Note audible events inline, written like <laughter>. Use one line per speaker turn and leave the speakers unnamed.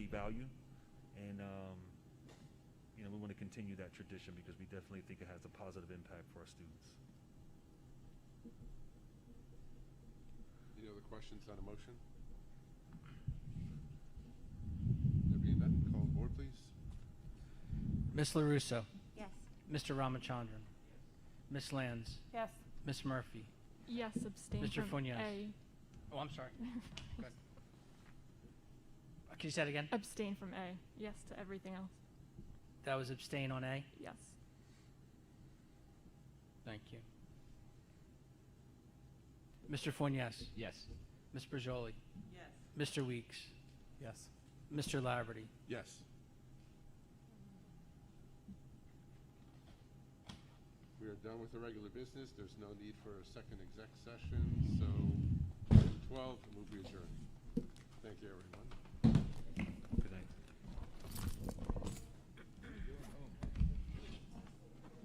value. And, um, you know, we want to continue that tradition because we definitely think it has a positive impact for our students.
Any other questions on a motion? There being none, call the board, please.
Ms. LaRusso,
Yes.
Mr. Ramachandran, Ms. Lands,
Yes.
Ms. Murphy.
Yes, abstain
Mr.
from
Funes.
A.
Oh, I'm
<laughs>
sorry. Go ahead. Uh, Can you say that again?
Abstain from A. Yes to everything else.
That was abstain on A?
Yes.
Thank you. Mr. Fuentes,
Yes.
Ms. Brijoli,
Yes.
Mr. Weeks,
Yes.
Mr. Laverty.
Yes. We are done with the regular business. There's no need for a second exec session, so 12, move adjourned. Thank you, everyone.